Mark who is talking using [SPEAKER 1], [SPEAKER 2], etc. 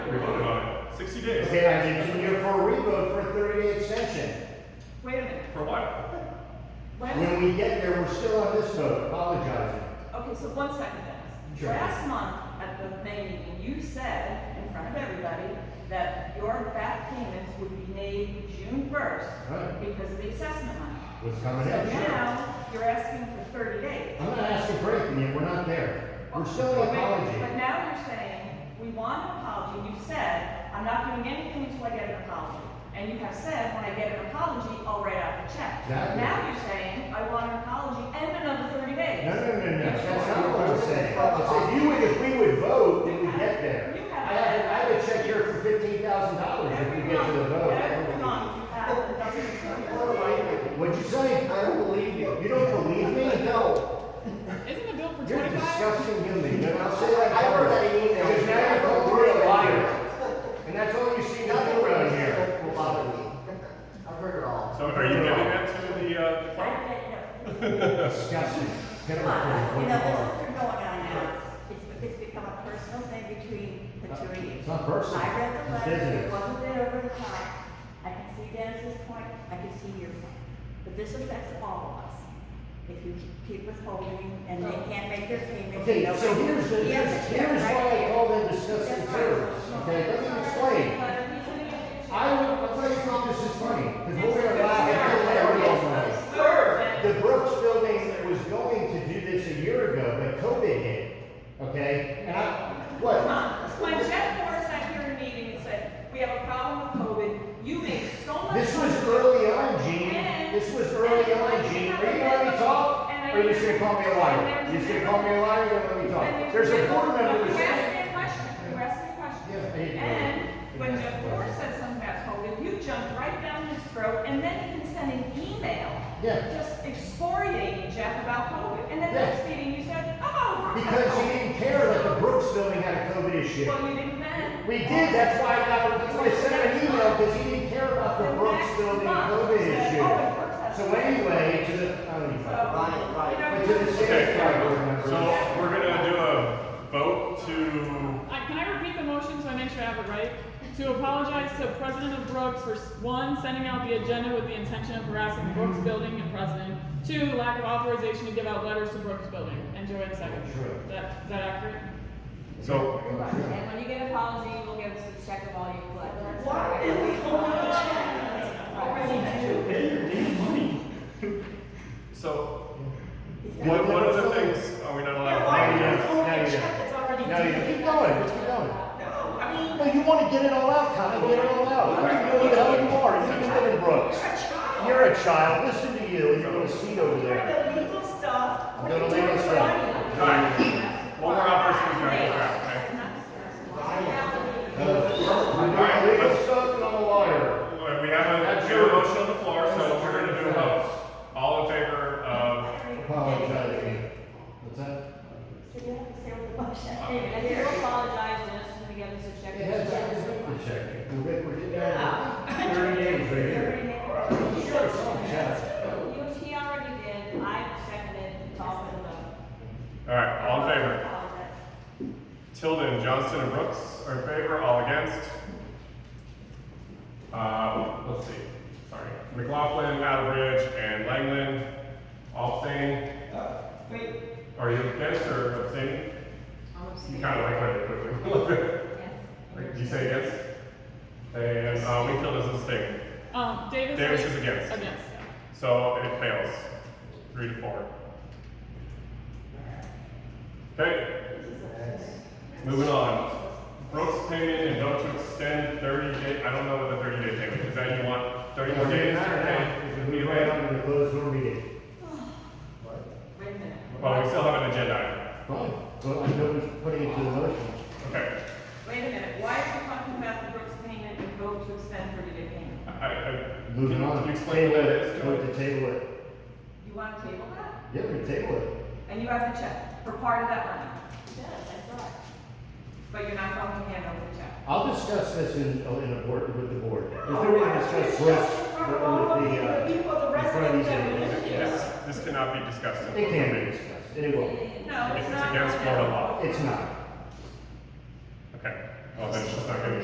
[SPEAKER 1] Sixty days.
[SPEAKER 2] Okay, I did two year for a revote for a thirty day extension.
[SPEAKER 3] Wait a minute,
[SPEAKER 1] For what?
[SPEAKER 3] when,
[SPEAKER 2] When we get there, we're still on this vote, apologizing.
[SPEAKER 3] okay, so one second, Dennis.
[SPEAKER 2] Sure.
[SPEAKER 3] Last month at the May meeting, you said in front of everybody that your back payments would be made June first
[SPEAKER 2] Right.
[SPEAKER 3] because of the assessment money.
[SPEAKER 2] What's coming
[SPEAKER 3] So
[SPEAKER 2] up? Sure.
[SPEAKER 3] now, you're asking for thirty days.
[SPEAKER 2] I'm not asking for anything, yet we're not there. We're still
[SPEAKER 3] Wait,
[SPEAKER 2] on apology.
[SPEAKER 3] But now you're saying, we want an apology, you said, I'm not doing anything until I get an apology. And you have said, when I get an apology, I'll write out the check.
[SPEAKER 2] Exactly.
[SPEAKER 3] Now you're saying, I want an apology and another thirty days.
[SPEAKER 2] No, no, no, no, that's
[SPEAKER 4] That's
[SPEAKER 2] not what I'm
[SPEAKER 4] what I'm
[SPEAKER 2] saying. I said,
[SPEAKER 4] saying.
[SPEAKER 2] you would, if we would vote, then
[SPEAKER 3] You
[SPEAKER 2] we'd
[SPEAKER 3] have-
[SPEAKER 2] get there.
[SPEAKER 3] you
[SPEAKER 2] I
[SPEAKER 3] have-
[SPEAKER 2] have, I have a check here for fifteen thousand dollars if we
[SPEAKER 3] Every
[SPEAKER 2] get to the
[SPEAKER 3] month, every
[SPEAKER 2] vote.
[SPEAKER 3] month you have a dozen
[SPEAKER 4] All
[SPEAKER 3] attorneys.
[SPEAKER 4] right.
[SPEAKER 2] What'd you say?
[SPEAKER 4] I don't believe you.
[SPEAKER 2] You don't believe me?
[SPEAKER 4] No.
[SPEAKER 5] Isn't the bill for
[SPEAKER 2] You're a
[SPEAKER 5] twenty-five?
[SPEAKER 2] disgusting human. You know,
[SPEAKER 4] I
[SPEAKER 2] I'll say that.
[SPEAKER 4] heard that email.
[SPEAKER 2] Because now you're called we're a liar. And that's all you see
[SPEAKER 4] Nothing
[SPEAKER 2] nothing around here.
[SPEAKER 4] will bother me. I've heard it all.
[SPEAKER 1] So are you giving that to the, uh,
[SPEAKER 6] I
[SPEAKER 1] client?
[SPEAKER 6] don't know.
[SPEAKER 2] Disgusting. Get
[SPEAKER 6] Come
[SPEAKER 2] over it.
[SPEAKER 6] on,
[SPEAKER 2] What
[SPEAKER 6] you
[SPEAKER 2] you
[SPEAKER 6] know, this
[SPEAKER 2] are.
[SPEAKER 6] has been going on now. It's, it's become a personal thing between the two of you.
[SPEAKER 2] It's not personal.
[SPEAKER 6] I read the
[SPEAKER 2] It's
[SPEAKER 6] letter,
[SPEAKER 2] business.
[SPEAKER 6] it wasn't a bit over the top. I can see Dennis's point, I can see your point. But this affects all of us. If you keep withholding and they can't make their payments.
[SPEAKER 2] Okay,
[SPEAKER 6] nobody-
[SPEAKER 2] so here's the,
[SPEAKER 6] He has a check
[SPEAKER 2] here's
[SPEAKER 6] right
[SPEAKER 2] why I
[SPEAKER 6] here.
[SPEAKER 2] call them disgusting
[SPEAKER 6] That's right.
[SPEAKER 2] terrorists, okay, let me explain. I would, I'll tell you why this is funny, because we're gonna laugh at the The Brooks building was going to do this a year ago, but COVID hit, okay, and I,
[SPEAKER 3] Come
[SPEAKER 2] what?
[SPEAKER 3] on. When Jeff Morris sat here in a meeting and said, we have a problem with COVID, you made so much.
[SPEAKER 2] This was
[SPEAKER 3] money.
[SPEAKER 2] early on, Gene, this was early on, Gene, are you gonna let me talk? Or are you just gonna call me a liar? You're just gonna call me a liar, you're gonna let me talk?
[SPEAKER 3] And
[SPEAKER 2] There's a board member who
[SPEAKER 3] You asked
[SPEAKER 2] said,
[SPEAKER 3] me a question, you asked me a question.
[SPEAKER 2] Yes, I did.
[SPEAKER 3] And when
[SPEAKER 2] Yes.
[SPEAKER 3] Jeff Morris said something about COVID, you jumped right down his throat and then even sent an email
[SPEAKER 2] yeah,
[SPEAKER 3] just excoriating Jeff about COVID. And then
[SPEAKER 2] Yes.
[SPEAKER 3] next meeting you said, oh. we're
[SPEAKER 2] because you
[SPEAKER 3] not."
[SPEAKER 2] didn't care that the Brooks building had a COVID issue.
[SPEAKER 3] Well, you didn't then.
[SPEAKER 2] We did, that's why I got, that's why I sent an email, because he didn't care about the Brooks building and COVID issue. So anyway, to the, I don't even
[SPEAKER 3] So,
[SPEAKER 2] know.
[SPEAKER 4] Right, right.
[SPEAKER 3] you
[SPEAKER 2] But
[SPEAKER 3] know,
[SPEAKER 2] to the
[SPEAKER 1] Okay,
[SPEAKER 2] sheriff's department.
[SPEAKER 1] so we're gonna do a vote to,
[SPEAKER 5] Uh, Can I repeat the motion so I make sure I have it right? To apologize to President of Brooks for, s- one, sending out the agenda with the intention of harassing Brooks Building and President. Two, lack of authorization to give out letters to Brooks Building. And Joanne second.
[SPEAKER 2] True.
[SPEAKER 5] Is that, is that accurate?
[SPEAKER 1] so,
[SPEAKER 7] And when you get an apology, we'll give us a check of all you collect.
[SPEAKER 3] Why did we hold on to that? Already.
[SPEAKER 1] so,
[SPEAKER 6] He's got-
[SPEAKER 1] what, what other things are we not allowed?
[SPEAKER 2] Why
[SPEAKER 1] to do?
[SPEAKER 2] are you-
[SPEAKER 3] holding
[SPEAKER 2] no,
[SPEAKER 3] a
[SPEAKER 2] you
[SPEAKER 3] check
[SPEAKER 2] don't.
[SPEAKER 3] that's already
[SPEAKER 2] No, you keep going, let's keep going.
[SPEAKER 3] No, I mean,
[SPEAKER 2] No, you wanna get it all out, Connie, get it all out. You know who the hell you are, you can live in Brooks.
[SPEAKER 3] you're a child.
[SPEAKER 2] You're a child, listen to you, you're gonna see over
[SPEAKER 3] You're
[SPEAKER 2] there.
[SPEAKER 3] the legal stuff.
[SPEAKER 2] I'm
[SPEAKER 3] What are
[SPEAKER 2] gonna
[SPEAKER 3] you
[SPEAKER 2] leave
[SPEAKER 3] doing
[SPEAKER 2] this
[SPEAKER 3] with money?
[SPEAKER 2] up.
[SPEAKER 1] Alright, one more opportunity, alright,
[SPEAKER 2] I'm not a legal stuff, and I'm a liar.
[SPEAKER 1] okay. Alright, We have a, we have a motion on the floor, so we're gonna do a vote. All in favor of,
[SPEAKER 2] Apologizing. What's that?
[SPEAKER 6] So you have to say what the motion
[SPEAKER 7] And if you apologize, Dennis is gonna give us a check.
[SPEAKER 2] Yeah, it's like a paper check. We're good, we're good. Thirty days right here. Sure, something happened.
[SPEAKER 7] You, he already did, I seconded, it's all been done.
[SPEAKER 1] alright, all in favor?
[SPEAKER 6] favor?
[SPEAKER 1] Tilden, Johnston, and Brooks are in favor, all against. Uh, let's see, sorry. McLaughlin, Attlebridge, and Langland, all abstaining.
[SPEAKER 3] Wait,
[SPEAKER 1] Are you against or abstaining? You kind of like went there quickly. Wait, Did you say against? And, uh, Wakefield is abstaining,
[SPEAKER 5] Um, Davis.
[SPEAKER 1] Davis is against.
[SPEAKER 5] Against.
[SPEAKER 1] so it fails, three to four. Okay, moving on. Brooks payment and vote to extend thirty day, I don't know what the thirty day payment, is that you want thirty more days? Okay,
[SPEAKER 2] We
[SPEAKER 1] we wait.
[SPEAKER 2] ran on to the closed door meeting.
[SPEAKER 3] wait a minute.
[SPEAKER 1] Well, we still have an agenda item.
[SPEAKER 2] Fine, but I know we're putting it to the motion.
[SPEAKER 1] Okay,
[SPEAKER 3] Wait a minute, why are we talking about the Brooks payment and vote to extend thirty day payment?
[SPEAKER 1] I, I.
[SPEAKER 2] Moving
[SPEAKER 1] can-
[SPEAKER 2] on.
[SPEAKER 1] Can you explain what
[SPEAKER 2] Table
[SPEAKER 1] that is?
[SPEAKER 2] Vote to table it.
[SPEAKER 3] You want to table that?
[SPEAKER 2] Yeah, we table it.
[SPEAKER 3] And you have the check for part of that money,
[SPEAKER 7] Yeah, that's right.
[SPEAKER 3] but you're not going to hand over the check.
[SPEAKER 2] I'll discuss this in, in a board, with the board. There's no way to discuss this with the, uh, in front of these individuals.
[SPEAKER 1] This, this cannot be discussed. in
[SPEAKER 2] It
[SPEAKER 1] public
[SPEAKER 2] can be
[SPEAKER 1] meeting.
[SPEAKER 2] discussed, and it will.
[SPEAKER 3] No,
[SPEAKER 1] It's
[SPEAKER 3] it's not.
[SPEAKER 1] against Florida law.
[SPEAKER 2] It's not.